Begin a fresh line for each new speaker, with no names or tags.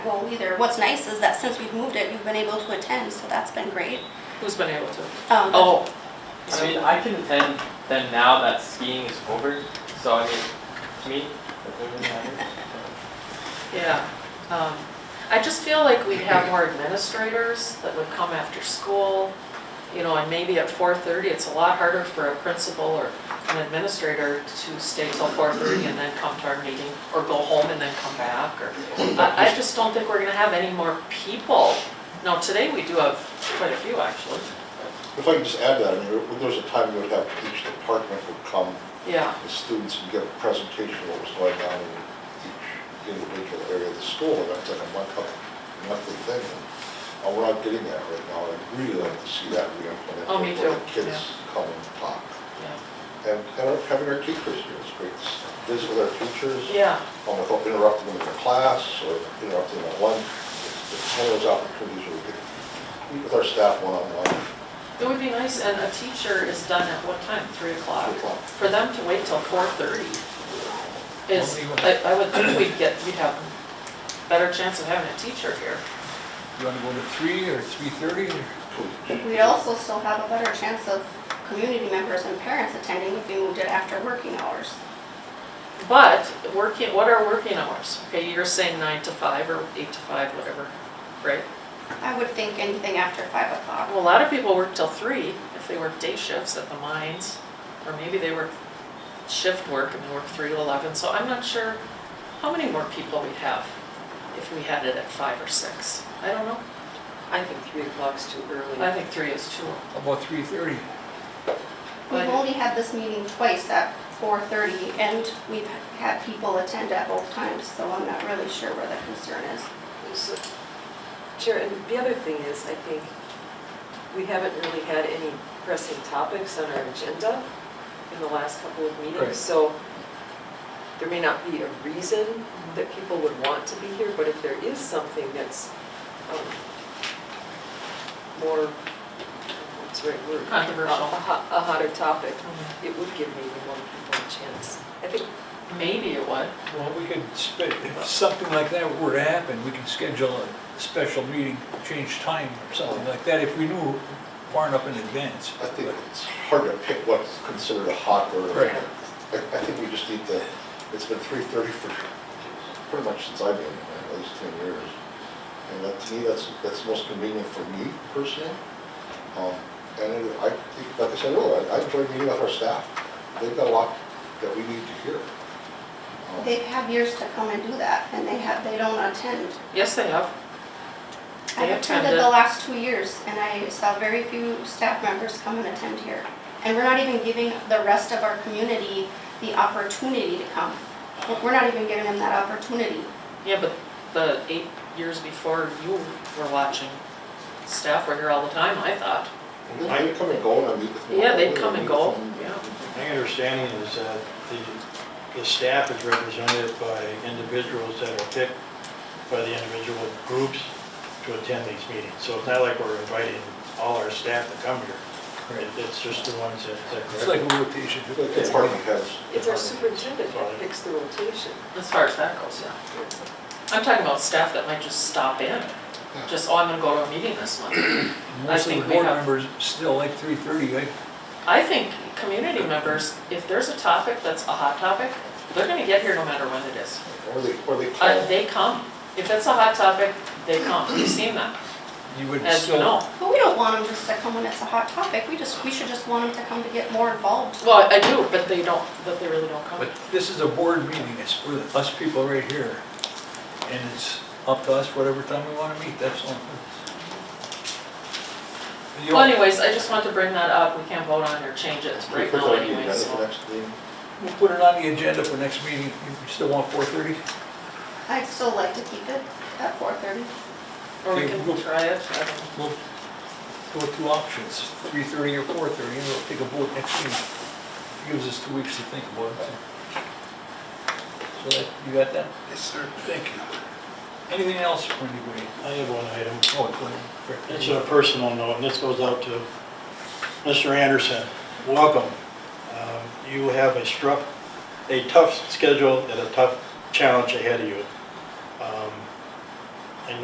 well either. What's nice is that since we've moved it, you've been able to attend, so that's been great.
Who's been able to?
Um,
Oh,
I mean, I can attend them now that skiing is over, so I mean, to me, that doesn't really matter.
yeah. Um, I just feel like we'd have more administrators that would come after school, you know, and maybe at 4:30, it's a lot harder for a principal or an administrator to stay till 4:30 and then come to our meeting, or go home and then come back, or, I, I just don't think we're gonna have any more people. Now, today we do have quite a few, actually,
If I could just add that, I mean, there- there was a time you would have each department would come,
yeah.
the students would give a presentation of what was going on in each individual area of the school, and that's like a month, a monthly thing. And uh, we're not getting that right now, and I'd really like to see that re-implemented.
Oh, me
Where the
too,
kids
yeah.
come and talk.
Yeah.
And and our- having our teachers here is great, visit with our teachers.
Yeah,
um, Without interrupting them in their class or interrupting them at lunch. It's it's one of those opportunities where we can meet with our staff one-on-one.
it would be nice, and a teacher is done at what time, three o'clock?
Three o'clock.
For them to wait till four thirty is, I, I would think we'd get, we'd have better chance of having a teacher here.
You want to go to three or three thirty?
We'd also still have a better chance of community members and parents attending if we moved it after working hours.
But working, what are working hours? Okay, you're saying nine to five or eight to five, whatever, right?
I would think anything after five o'clock.
Well, a lot of people work till three if they work day shifts at the mines, or maybe they work shift work and they work three to eleven, so I'm not sure how many more people we'd have if we had it at five or six. I don't know.
I think three o'clock's too early.
I think three is too.
About three thirty.
We've only had this meeting twice at four thirty, and we've had people attend at both times, so I'm not really sure where the concern is.
So, Chair, and the other thing is, I think, we haven't really had any pressing topics on our agenda in the last couple of
Right.
meetings. So there may not be a reason that people would want to be here, but if there is something that's um, more, what's the right word?
Controversial.
A hot- a hotter topic,
Mhm.
it would give maybe more people a chance. I think
Maybe it would.
Well, we could, spe- if something like that were to happen, we can schedule a special meeting, change time or something like that if we knew far enough in advance.
I think it's hard to pick what's considered a hot or,
Right.
I, I think we just need to, it's been three thirty for, pretty much since I've been, here, at least ten years. And that, to me, that's, that's most convenient for me personally. Um, and it- I think, like I said earlier, I I enjoy meeting with our staff. They've got a lot that we need to hear. Um,
They have years to come and do that, and they have, they don't attend.
Yes, they have.
I
They
have attended
attended.
the last two years, and I saw very few staff members come and attend here. And we're not even giving the rest of our community the opportunity to come. We're not even giving them that opportunity.
Yeah, but the eight years before you were watching, staff were here all the time, I thought.
They come and go and I meet with them.
Yeah, they'd come and go,
I meet with
yeah.
them.
My understanding is that the, the staff is represented by individuals that are picked by the individual groups to attend these meetings. So it's not like we're inviting all our staff to come here. It- It's just the ones that, that.
It's like a rotation.
Like the department heads.
it's our
department-
superintendent that picks the rotation.
As far as that goes, yeah. I'm talking about staff that might just stop in, just, oh, I'm gonna go to a meeting this month.
Most of
think
the
we
board
have-
members still like three thirty, right?
I think community members, if there's a topic that's a hot topic, they're gonna get here no matter when it is.
Or they, or they call.
Uh, they come. If it's a hot topic, they come. We've seen that,
You would
as you
still.
know.
But we don't want them just to come when it's a hot topic. We just, we should just want them to come to get more involved.
Well, I do, but they don't, but they really don't come.
But this is a board meeting, it's for us people right here. And it's up to us whatever time we want to meet, that's all. You-
Well anyways, I just wanted to bring that up, we can't vote on it or change it
Can we
right
put
now
that on the
anyways,
agenda for
so.
next meeting?
We'll put it on the agenda for next meeting. You still want four thirty?
I'd still like to keep it at four thirty.
Or we
Okay,
can
we'll-
try it, I don't know.
We'll go with two options, three thirty or four thirty, and we'll take a vote next meeting. Gives us two weeks to think about it. So that, you got that? Yes, sir. Thank you. Anything else for anybody?
I have one item.
Oh, go ahead.
It's a personal note, and this goes out to Mr. Anderson. Welcome. Um, You Um, have a struck, a tough schedule and a tough challenge ahead of you.